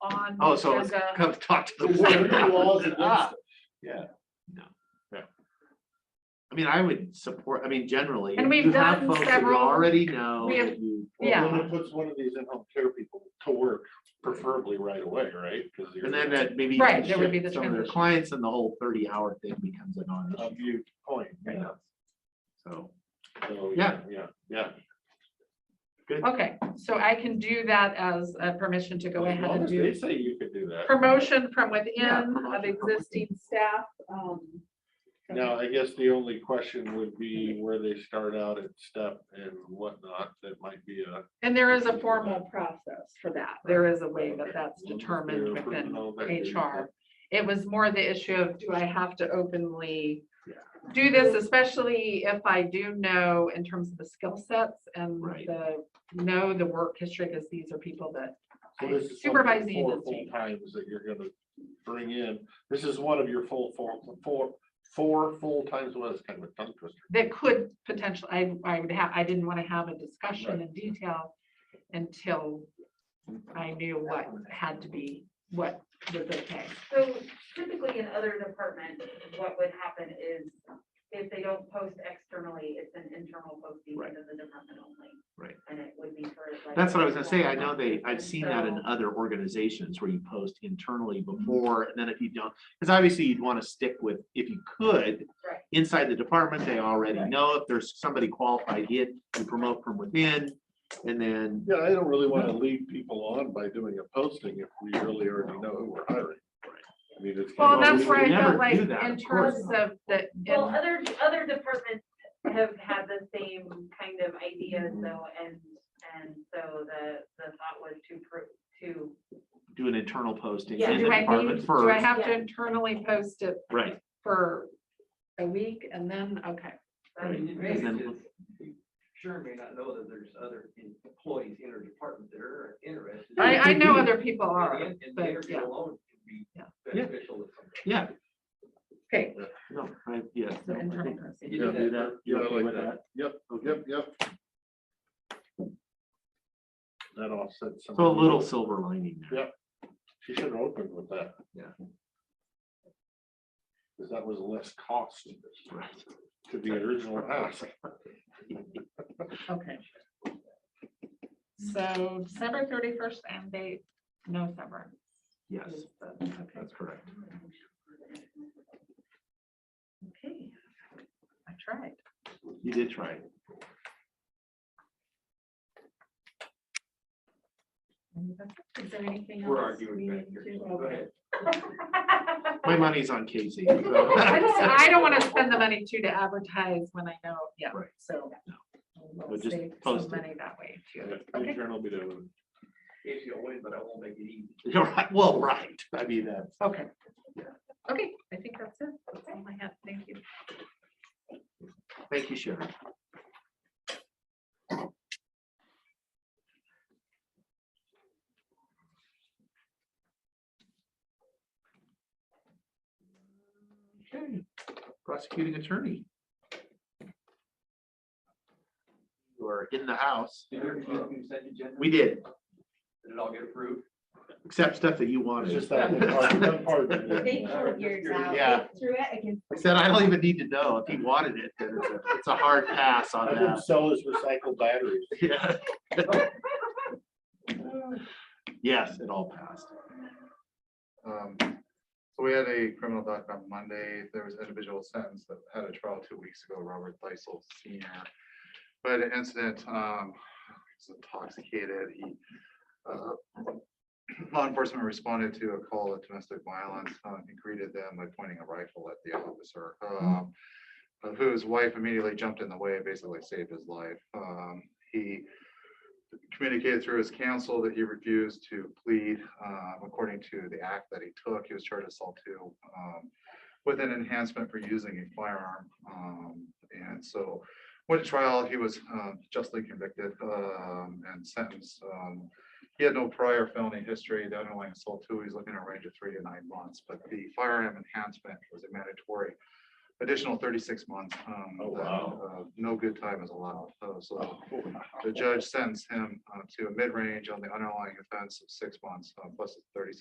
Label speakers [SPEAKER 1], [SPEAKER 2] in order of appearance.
[SPEAKER 1] on
[SPEAKER 2] Oh,
[SPEAKER 1] the
[SPEAKER 2] so it's
[SPEAKER 1] agenda.
[SPEAKER 2] come talk to the.
[SPEAKER 3] There's already laws
[SPEAKER 2] board.
[SPEAKER 3] against
[SPEAKER 2] Ah,
[SPEAKER 3] it. Yeah.
[SPEAKER 2] No, yeah. I mean, I would support, I mean, generally.
[SPEAKER 1] And
[SPEAKER 2] if
[SPEAKER 1] we've
[SPEAKER 2] you have
[SPEAKER 1] done
[SPEAKER 2] folks that you
[SPEAKER 1] several-
[SPEAKER 2] Already know
[SPEAKER 1] we have-
[SPEAKER 2] that you.
[SPEAKER 3] Well,
[SPEAKER 1] Yeah.
[SPEAKER 3] Someone puts one of these in-home care people to work preferably right away, right? 'Cause you're-
[SPEAKER 2] And then that maybe. you
[SPEAKER 1] Right,
[SPEAKER 2] can
[SPEAKER 1] there would
[SPEAKER 2] shift
[SPEAKER 1] be the
[SPEAKER 2] Some of their
[SPEAKER 1] transition.
[SPEAKER 2] clients and the whole thirty hour thing becomes a non
[SPEAKER 3] A
[SPEAKER 2] issue.
[SPEAKER 3] mute point, you know,
[SPEAKER 2] So,
[SPEAKER 3] so,
[SPEAKER 2] Yeah.
[SPEAKER 3] Yeah, yeah.
[SPEAKER 1] Okay, so I can do that as a permission to go
[SPEAKER 3] As
[SPEAKER 1] ahead
[SPEAKER 3] long
[SPEAKER 1] and
[SPEAKER 3] as
[SPEAKER 1] do
[SPEAKER 3] They say you could do that.
[SPEAKER 1] promotion from
[SPEAKER 2] Yeah,
[SPEAKER 1] within
[SPEAKER 2] promotion
[SPEAKER 1] of
[SPEAKER 2] from
[SPEAKER 1] existing staff. um,
[SPEAKER 3] Now, I guess the only question would be where they start out at step and whatnot, that might be a.
[SPEAKER 1] And there is a formal process for that. There is a way that that's determined within HR. It was more the issue of, do I have to openly
[SPEAKER 2] Yeah.
[SPEAKER 1] do this, especially if I do know in terms of the skill sets and
[SPEAKER 2] Right.
[SPEAKER 1] the, know the work history, because these are people that
[SPEAKER 3] So this is something
[SPEAKER 1] Supervising
[SPEAKER 3] Four
[SPEAKER 1] is-
[SPEAKER 3] full times that you're gonna bring in. This is one of your full, four, four, four full times, well, it's kind of a tongue twister.
[SPEAKER 1] that could potentially, I, I would have, I didn't want to have a discussion in detail until I knew what had to be, what was okay.
[SPEAKER 4] So typically in other departments, what would happen is if they don't post externally, it's an internal posting
[SPEAKER 2] Right.
[SPEAKER 4] within the department only.
[SPEAKER 2] Right.
[SPEAKER 4] And it would be for like.
[SPEAKER 2] that's what I was gonna say. I know they, I've
[SPEAKER 4] And
[SPEAKER 2] seen that in
[SPEAKER 4] so-
[SPEAKER 2] other organizations where you post internally before, and then if you don't, because obviously you'd wanna stick with, if you could.
[SPEAKER 4] Right.
[SPEAKER 2] Inside the department, they already
[SPEAKER 1] Right.
[SPEAKER 2] know if there's somebody qualified yet, you promote from within, and then.
[SPEAKER 3] Yeah, I don't really wanna lead people on by doing a posting if we really already know who we're hiring. I mean, it's.
[SPEAKER 1] Well,
[SPEAKER 2] Well,
[SPEAKER 1] that's
[SPEAKER 2] we
[SPEAKER 1] where I
[SPEAKER 2] would never
[SPEAKER 1] felt like
[SPEAKER 2] do that,
[SPEAKER 1] in
[SPEAKER 2] of course
[SPEAKER 1] terms
[SPEAKER 2] not.
[SPEAKER 1] of the,
[SPEAKER 4] Well,
[SPEAKER 1] in-
[SPEAKER 4] other, other departments have had the same kind of ideas
[SPEAKER 2] Mm-hmm.
[SPEAKER 3] Mhm.
[SPEAKER 4] though, and, and so the, the thought was to prove, to.
[SPEAKER 2] do an internal posting
[SPEAKER 4] Yeah,
[SPEAKER 2] in the
[SPEAKER 1] do I
[SPEAKER 2] department
[SPEAKER 1] need, do I
[SPEAKER 2] first,
[SPEAKER 1] have to
[SPEAKER 4] Yeah.
[SPEAKER 1] internally post it
[SPEAKER 2] right,
[SPEAKER 1] for a week and then, okay.
[SPEAKER 2] right.
[SPEAKER 4] um,
[SPEAKER 5] And it
[SPEAKER 2] and
[SPEAKER 5] may
[SPEAKER 2] then
[SPEAKER 5] be
[SPEAKER 2] look-
[SPEAKER 5] just- you Sure may not know that there's other employees in our department that are interested.
[SPEAKER 1] I, I know other people are,
[SPEAKER 5] And and the
[SPEAKER 1] but
[SPEAKER 5] interview
[SPEAKER 1] yeah,
[SPEAKER 5] alone can be
[SPEAKER 1] Yeah.
[SPEAKER 2] Yeah.
[SPEAKER 5] beneficial. to somebody.
[SPEAKER 2] Yeah,
[SPEAKER 1] okay.
[SPEAKER 2] no, I, yeah.
[SPEAKER 1] so
[SPEAKER 2] no, I
[SPEAKER 1] internal
[SPEAKER 2] think-
[SPEAKER 1] posting.
[SPEAKER 5] You do
[SPEAKER 2] Do
[SPEAKER 5] that.
[SPEAKER 2] that, you
[SPEAKER 3] Yeah, I
[SPEAKER 2] okay
[SPEAKER 3] like
[SPEAKER 2] with
[SPEAKER 3] that.
[SPEAKER 2] that?
[SPEAKER 3] Yep, yep, yep. That offsets. some
[SPEAKER 2] So a
[SPEAKER 3] of the-
[SPEAKER 2] little silver lining there.
[SPEAKER 3] Yeah. She should have opened with that.
[SPEAKER 2] Yeah.
[SPEAKER 3] Because that was less cost
[SPEAKER 2] Right.
[SPEAKER 3] to the original ask.
[SPEAKER 1] Okay. So December thirty-first and date, no severance.
[SPEAKER 2] Yes,
[SPEAKER 1] is the- Okay.
[SPEAKER 2] that's correct.
[SPEAKER 1] Okay. I tried.
[SPEAKER 2] You did try. it.
[SPEAKER 1] Is there anything else?
[SPEAKER 5] We're arguing
[SPEAKER 1] we
[SPEAKER 5] back
[SPEAKER 1] need to-
[SPEAKER 5] here. Go
[SPEAKER 1] okay.
[SPEAKER 5] ahead.
[SPEAKER 2] My money's on Casey.
[SPEAKER 1] I don't,
[SPEAKER 2] so-
[SPEAKER 1] I don't want to spend the money too to advertise when I know, yeah,
[SPEAKER 2] Right.
[SPEAKER 1] so.
[SPEAKER 2] No.
[SPEAKER 1] we'll
[SPEAKER 2] But just
[SPEAKER 1] save some
[SPEAKER 2] post it.
[SPEAKER 1] Money that way too. Okay.
[SPEAKER 3] Internal be doing.
[SPEAKER 5] If you'll win, but I won't make it easy.
[SPEAKER 2] You're right, well, right, I mean, that's.
[SPEAKER 1] Okay. Okay, I think that's it. That's all I have. Thank you.
[SPEAKER 2] Thank you, Sharon. Okay, Prosecuting attorney. You are in the house.
[SPEAKER 5] Did you do consent agenda?
[SPEAKER 2] We did,
[SPEAKER 5] Did it all get approved?
[SPEAKER 2] except stuff that you wanted.
[SPEAKER 3] It's just that one part- one part that it-
[SPEAKER 6] They pulled yours out,
[SPEAKER 2] Yeah.
[SPEAKER 6] they threw it against.
[SPEAKER 2] I said, I don't even need to know. If he wanted it, then it's a- it's a hard pass on
[SPEAKER 3] I didn't
[SPEAKER 2] that.
[SPEAKER 3] sell his recycled batteries.
[SPEAKER 2] Yeah. Yes, it all passed.
[SPEAKER 7] Um, So we had a criminal doc on Monday. There was an individual sentence that had a trial two weeks ago, Robert Lysel Senior. But an incident, um, he was intoxicated. He, uh, law enforcement responded to a call of domestic violence. Uh, He greeted them by pointing a rifle at the officer, um, of whose wife immediately jumped in the way, basically saved his life. Um, He communicated through his counsel that he refused to plead um, according to the act that he took. He was charged with assault two um, with an enhancement for using a firearm. Um, And so went to trial, he was um, justly convicted um, and sentenced. Um, He had no prior felony history, the underlying assault two, he's looking at a range of three to nine months, but the firearm enhancement was a mandatory additional thirty-six months. um,
[SPEAKER 3] Oh,
[SPEAKER 7] that,
[SPEAKER 3] wow. Oh,
[SPEAKER 7] uh, No good time is allowed, Uh, so the judge sentenced him uh, to a mid-range on the underlying offense of six months, uh, plus a thirty-six